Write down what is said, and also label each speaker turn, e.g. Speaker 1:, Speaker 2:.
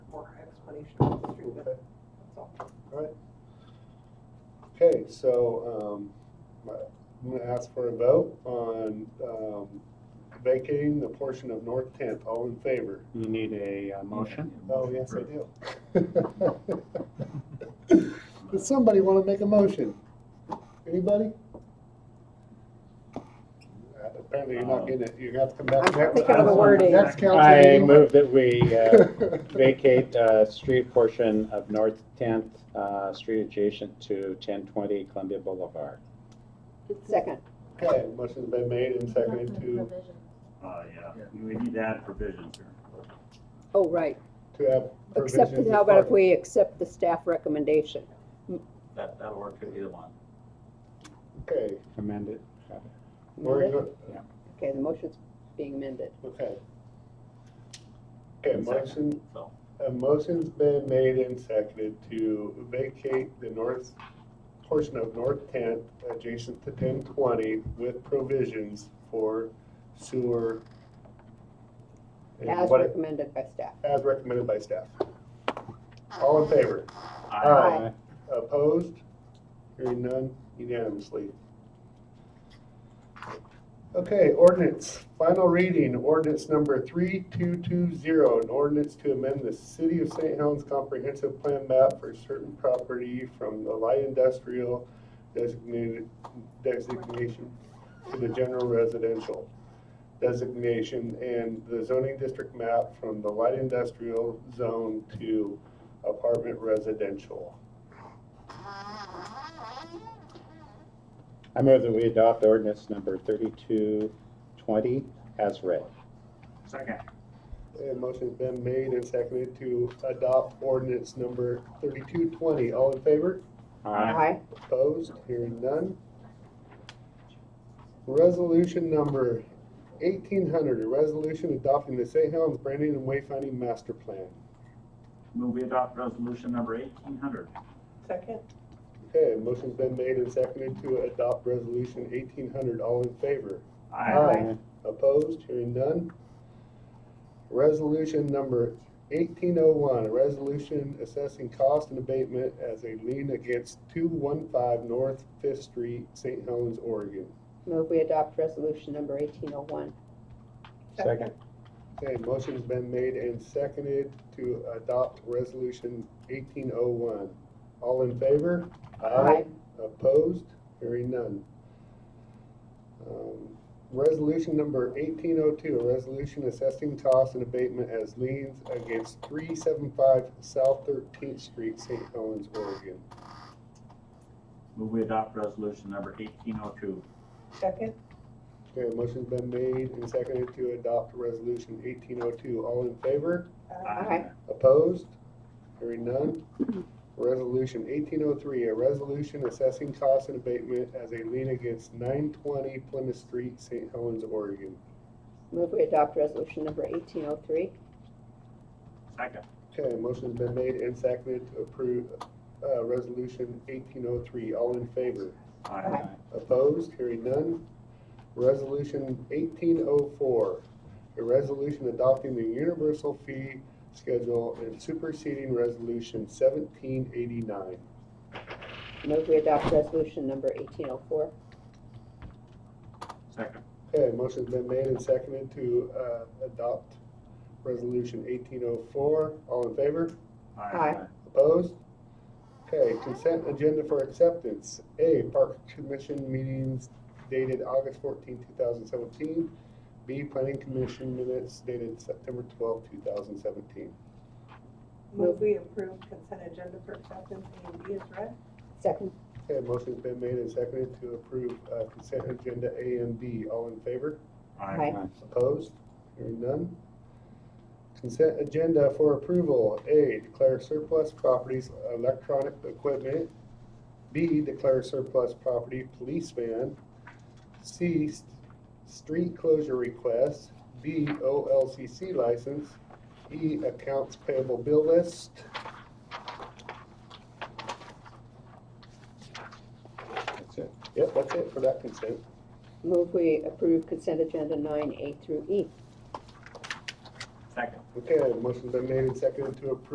Speaker 1: regulation of the
Speaker 2: Okay.
Speaker 1: street, that's all.
Speaker 2: All right. Okay, so um, I'm going to ask for a vote on um, vacating the portion of North 10th. All in favor?
Speaker 3: You need a uh, motion?
Speaker 2: Oh, yes, I do. Does somebody want to make a motion? Anybody? Apparently you're not getting it. You're going to have to come back.
Speaker 1: I'm
Speaker 2: next-
Speaker 1: thinking of the wording.
Speaker 2: Next council
Speaker 3: Um, I
Speaker 2: meeting.
Speaker 3: move that we uh, vacate uh, street portion of North 10th uh, Street adjacent to 1020 Columbia Boulevard.
Speaker 1: Second,
Speaker 2: Okay, motion's been made and seconded to,
Speaker 4: Uh, yeah, we need to add provisions here.
Speaker 1: oh, right,
Speaker 2: to have
Speaker 1: except,
Speaker 2: provisions
Speaker 1: how
Speaker 2: as
Speaker 1: about
Speaker 2: part
Speaker 1: if we accept the staff recommendation?
Speaker 4: That, that'll work for either one.
Speaker 2: of- Okay,
Speaker 3: Amend it.
Speaker 2: we're,
Speaker 1: Okay,
Speaker 2: go-
Speaker 1: the motion's being amended.
Speaker 2: okay. Okay,
Speaker 4: Second.
Speaker 2: motion,
Speaker 4: So,
Speaker 2: A motion's been made and seconded to vacate the north, portion of North Tenth adjacent to ten twenty with provisions for sewer. and
Speaker 1: As
Speaker 2: what-
Speaker 1: recommended by staff.
Speaker 2: As recommended by staff. All in favor?
Speaker 4: I,
Speaker 1: Aye.
Speaker 2: Opposed? Hearing none unanimously. Okay, ordinance, final reading, ordinance number 3220, an ordinance to amend the City of St. Helens Comprehensive Plan map for certain property from the light industrial designated designation to the general residential designation and the zoning district map from the light industrial zone to apartment residential.
Speaker 3: I move that we adopt ordinance number 3220 as read.
Speaker 4: second,
Speaker 2: And motion's been made and seconded to adopt ordinance number thirty-two twenty. All in favor?
Speaker 3: Aye.
Speaker 1: Aye.
Speaker 2: Opposed? Hearing none. Resolution number eighteen hundred, a resolution adopting the St. Helens Branding and Wayfinding Master Plan.
Speaker 4: move we adopt resolution number eighteen hundred.
Speaker 1: Second.
Speaker 2: Okay, motion's been made and seconded to adopt resolution eighteen hundred. All in favor?
Speaker 4: I,
Speaker 2: Opposed, hearing none. Resolution number eighteen oh one, a resolution assessing cost and abatement as a lien against two one five North Fifth Street, St. Helens, Oregon.
Speaker 1: Move we adopt resolution number eighteen oh one.
Speaker 3: Second.
Speaker 2: Okay, motion's been made and seconded to adopt resolution eighteen oh one. All in favor?
Speaker 1: Aye.
Speaker 2: Opposed? Hearing none. Um, Resolution number eighteen oh two, a resolution assessing costs and abatement as liens against three seven five South Thirteenth Street, St. Helens, Oregon.
Speaker 4: move we adopt resolution number eighteen oh two.
Speaker 1: Second.
Speaker 2: Okay, motion's been made and seconded to adopt resolution eighteen oh two. All in favor?
Speaker 5: uh,
Speaker 4: Uh,
Speaker 1: Aye.
Speaker 2: Opposed? Hearing none. Resolution eighteen oh three, a resolution assessing costs and abatement as a lien against nine twenty Plymouth Street, St. Helens, Oregon.
Speaker 1: Move we adopt resolution number eighteen oh three.
Speaker 4: Second,
Speaker 2: Okay, motion's been made and seconded to approve, uh, resolution eighteen oh three. All in favor?
Speaker 4: I,
Speaker 2: Opposed? Hearing none. Resolution eighteen oh four, a resolution adopting the universal fee schedule and superseding resolution seventeen eighty-nine.
Speaker 1: Move we adopt resolution number eighteen oh four.
Speaker 4: second,
Speaker 2: Okay, motion's been made and seconded to uh, adopt Resolution 1804. All in favor?
Speaker 4: I,
Speaker 1: Aye.
Speaker 2: Opposed? Okay, consent agenda for acceptance. A, Park Commission meetings dated August 14, 2017. B, Planning Commission minutes dated September 12, 2017.
Speaker 5: Move we approve consent agenda for acceptance A and B E is read.
Speaker 1: Second.
Speaker 2: Okay, motion's been made and seconded to approve uh, consent agenda A and B. All in favor?
Speaker 4: I,
Speaker 2: Opposed? Hearing none. Consent agenda for approval. A, declare surplus properties electronic equipment. B, declare surplus property police van. C, s- street closure request. D, OLCC license. E, accounts payable bill list.
Speaker 3: That's it.
Speaker 2: Yep, that's it for that consent.
Speaker 1: Move we approve consent agenda nine A through E.
Speaker 4: second.
Speaker 2: Okay, motion's been made and seconded to approve